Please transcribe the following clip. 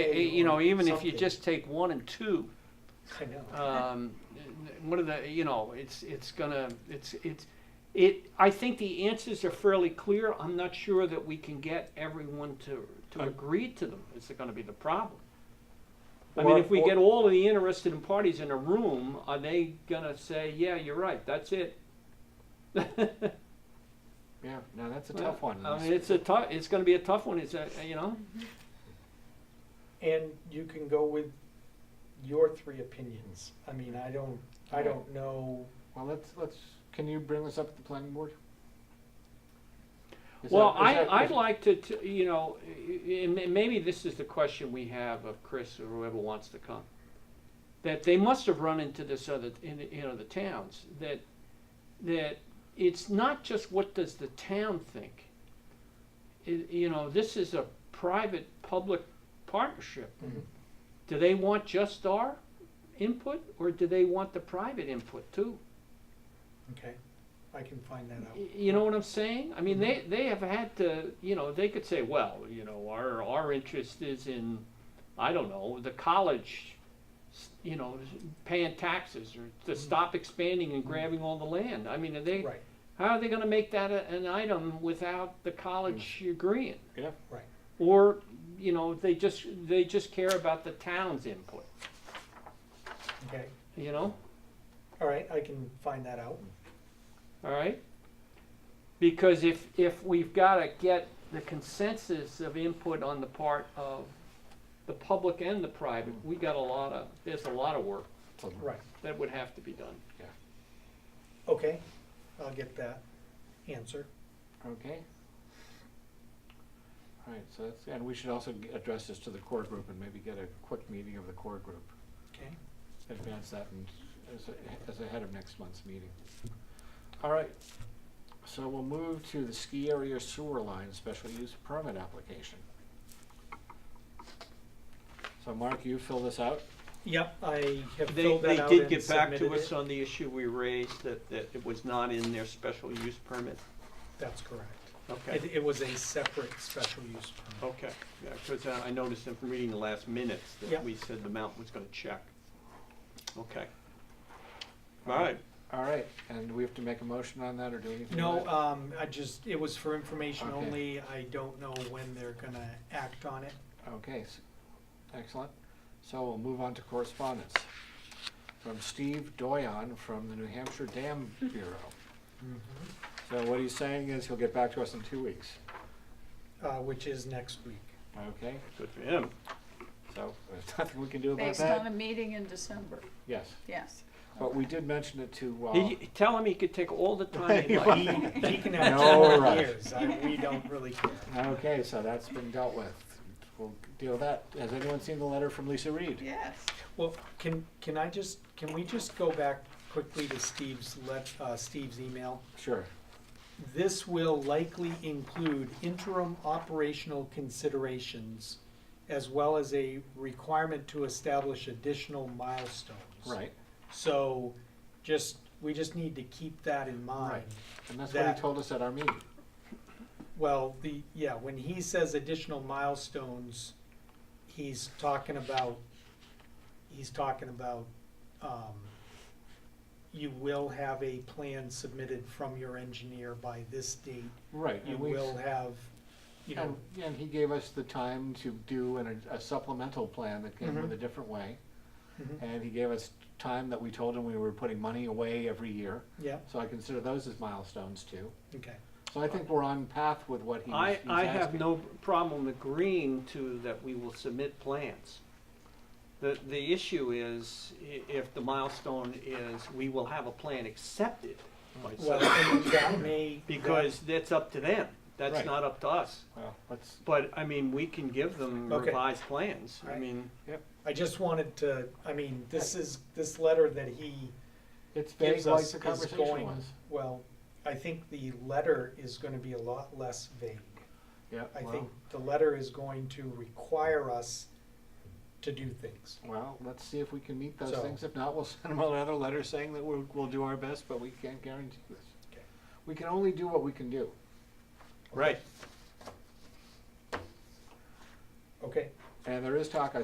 Eh, You know, or even if you something. just take one and two, I know. Uh, um, one of the, you know, it's, it's gonna, it's, it's, it, I think the answers are fairly clear. I'm not sure that we can get everyone to, to I- agree to them. It's gonna be the problem. I Or- mean, if we or- get all of the interested parties in a room, are they gonna say, yeah, you're right, that's it? Yeah, no, that's a Well, tough one. I mean, it's a tough, it's gonna be a tough one. It's a, you know, And you can go with your three opinions. I mean, I don't, I don't know. Well, let's, let's, can you bring this up at the planning board? Is Well, that- is I, that- I'd is- like to, to, you know, and and maybe this is the question we have of Chris or whoever wants to come. That they must have run into this other, in, you know, the towns, that, that it's not just what does the town think. It, you know, this is a private-public partnership. Mhm. Do they want just our input, or do they want the private input too? Okay, I can find that out. Y- You know what I'm saying? I mean, they, they have had to, you know, they could say, well, you know, our, our interest is in, I don't know, the college, s- you know, s- paying taxes or to stop expanding and grabbing all the land. I mean, are they, Right, how are they gonna make that a, an item without the college agreeing? Yeah. right. Or, you know, they just, they just care about the town's input, Okay, you know? all right, I can find that out. All right? Because if, if we've got to get the consensus of input on the part of the public and the private, we got a lot of, there's a lot of work Right, that would have to be done. okay, I'll get that answer. Okay. All right, so that's, and we should also g- address this to the core group and maybe get a quick meeting of the core group. Okay, Advance that and as, a- as ahead of next month's meeting. All right, so we'll move to the ski area sewer line special use permit application. So Mark, you fill this out? yep, I have They, filled they that out did and get back to submitted us it. on the issue we raised, that, that it was not in their special use permit. That's correct. Okay, Oh. It, it was a separate special use permit. okay, yeah, because I noticed in from reading the last minutes Yeah. that we said the mountain was gonna check. Okay. All right, All right, and do we have to make a motion on that or do anything? No, with it? um, I just, it was for information Okay. only. I don't know when they're gonna act on it. Okay, s- excellent. So we'll move on to correspondence. From Steve Doyon from the New Hampshire Dam Bureau. So what he's saying is he'll get back to us in two weeks, Uh, which is next week. okay? good for him. So there's nothing we can do about Based on a that. meeting in December, Yes, yes. but we did mention it to, uh, He, tell him he could take all the time he He, likes. he can No have two more rush. years. I, we don't really care. okay, so that's been dealt with. We'll deal with that. Has anyone seen the letter from Lisa Reed? Yes. Well, can, can I just, can we just go back quickly to Steve's let, uh, Steve's email? Sure. This will likely include interim operational considerations as well as a requirement to establish additional milestones. Right, So just, we just need to keep that in mind. and that's what That- he told us at our meeting. Well, the, yeah, when he says additional milestones, he's talking about, he's talking about, um, you will have a plan submitted from your engineer by this date. Right. You and we- will have, you know, And, and he gave us the time to do an, a supplemental plan that came Mm-hmm. with a different way. Mhm. And he gave us time that we told him we were putting money away every year, yeah, so I consider those as milestones too. okay, So I think we're on path with what he's, I, he's I have asking. no problem agreeing to that we will submit plans. The, the issue is, i- if the milestone is, we will have a plan accepted by Hmm. well, some- and that may. because that's up to them, that's Right. not up to us. Well, let's, But, I mean, we can give them Okay. revised plans, I Right. mean, I just wanted to, I mean, this is, this letter that he it's vague gives like us the is conversation going, was. well, I think the letter is gonna be a lot less vague. Yeah, I well, think the letter is going to require us to do things. well, let's see if we can meet those So- things. If not, we'll send him another letter saying that we'll, we'll do our best, but we can't guarantee this. Okay. We can only do what we can do. right, Okay, And there is talk, I